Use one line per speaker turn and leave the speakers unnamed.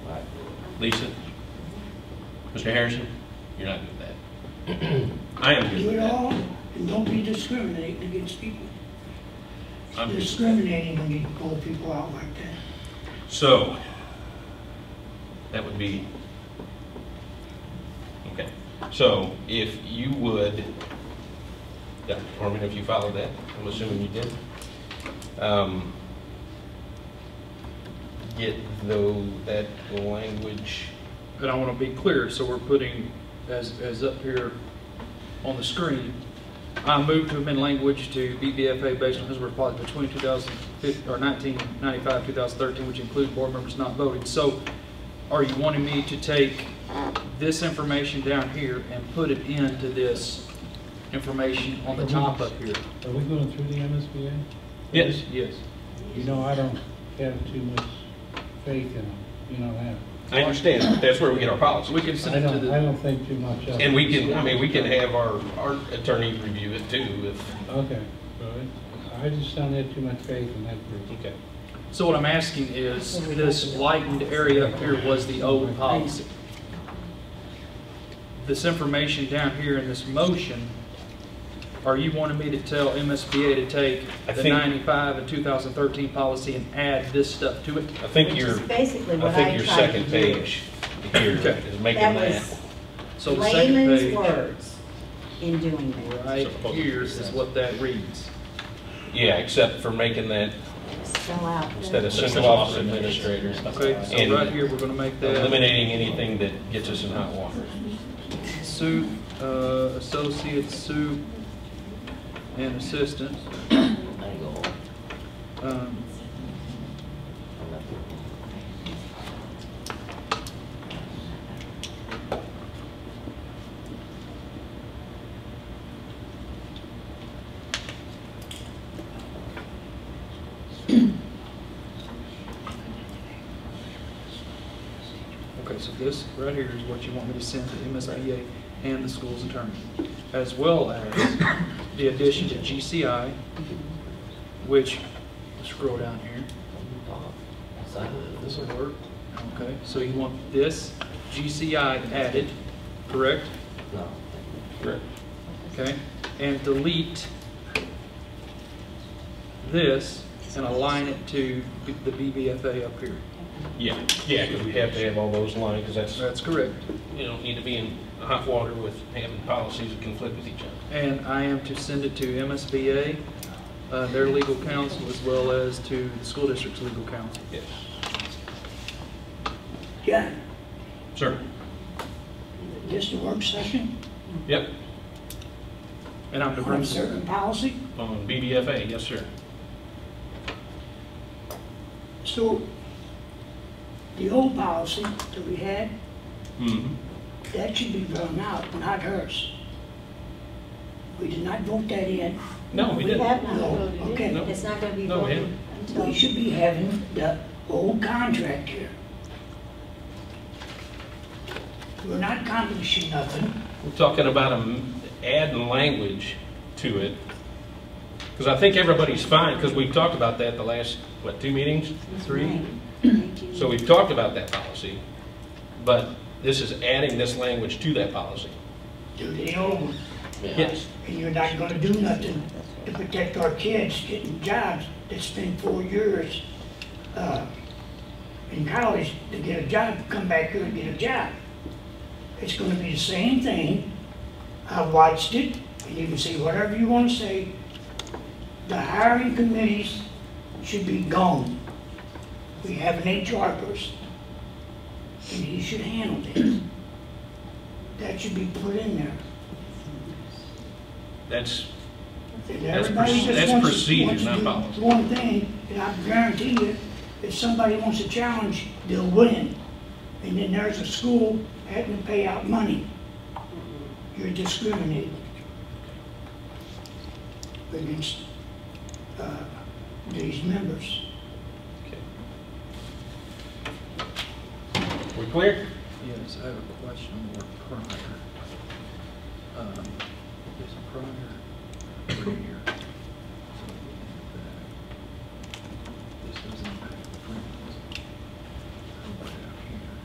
Lisa? Mr. Harrison? You're not good with that. I am good
Do
with
it
that.
all, and don't be discriminating against people.
I'm good.
Discriminating when you pull people out like that.
So, that would be, okay. So if you would, Dr. Corman, if you followed that, I'm assuming you did, um, get though that language,
And I want to be clear, so we're putting, as, as up here on the screen, I move to amend language to BBFA based on Hillsborough policy between 2015, or 1995, 2013, which include board members not voting. So are you wanting me to take this information down here and put it into this information on the top up here?
Are we going through the MSBA?
yes,
Yes.
You know, I don't have too much faith in them, you know that.
I understand, but that's where we get our
So
policy.
we can
I
send it to
don't, I
the,
don't think too much of it.
And we can, I mean, we can have our, our attorney review it too if,
Okay, all right. I just don't have too much faith in that group.
okay.
so what I'm asking is, this lightened area up here was the old policy. this information down here in this motion, are you wanting me to tell MSBA to take
I
the
think-
95 and 2013 policy and add this stuff to it?
I think
Which
your,
is basically
I
what I
think your
tried to
second
do.
page here
Okay.
is making
That
that.
was
So the second
layman's
page,
words in doing that.
right here is what that reads.
Yeah, except for making that,
Spell out.
instead of central office administrator,
Okay,
And-
so right here, we're going to make that
eliminating anything that gets us in hot water.
Sue, uh, associate Sue, and assistant. Um, Okay, so this right here is what you want me to send to MSBA and the school's attorney, as well as the addition to GCI, which, scroll down here. This will work. Okay, so you want this GCI added, correct?
Correct.
Okay, and delete this and align it to the BBFA up here.
Yeah, yeah, because we have to have all those lined, because that's,
That's correct.
you don't need to be in hot water with having policies that conflict with each other.
And I am to send it to MSBA, uh, their legal counsel, as well as to the school district's legal counsel.
Yes.
John,
Sir?
this a work session
Yep,
And I'm to
on
bring,
a certain policy?
on BBFA, yes, sir.
So, the old policy that we had,
Mhm.
that should be thrown out, not hers. We did not vote that in.
No, we
We
didn't.
have not
No,
voted
okay.
it. It's not going to be
No, we
voted until.
We should be having the old contract here. We're not accomplishing nothing.
We're talking about am- adding language to it. Because I think everybody's fine, because we've talked about that the last, what, two meetings? Three? So we've talked about that policy, but this is adding this language to that policy.
Do the old one.
Yes.
And you're not gonna do nothing to protect our kids getting jobs that spend four years, uh, in college to get a job, come back here and get a job. It's gonna be the same thing. I watched it, and you can say whatever you wanna say. The hiring committees should be gone. We have an HR person, and he should handle this. That should be put in there.
That's,
And
That's
everybody
proce-
just
that's
wants-
procedure,
wants to
not
do
policy.
One thing, and I guarantee you, if somebody wants a challenge, they'll win. And then there's a school having to pay out money. You're discriminating against, uh, these members.
we're clear?
yes, I have a question on the word prior. Um, Is prior, right here.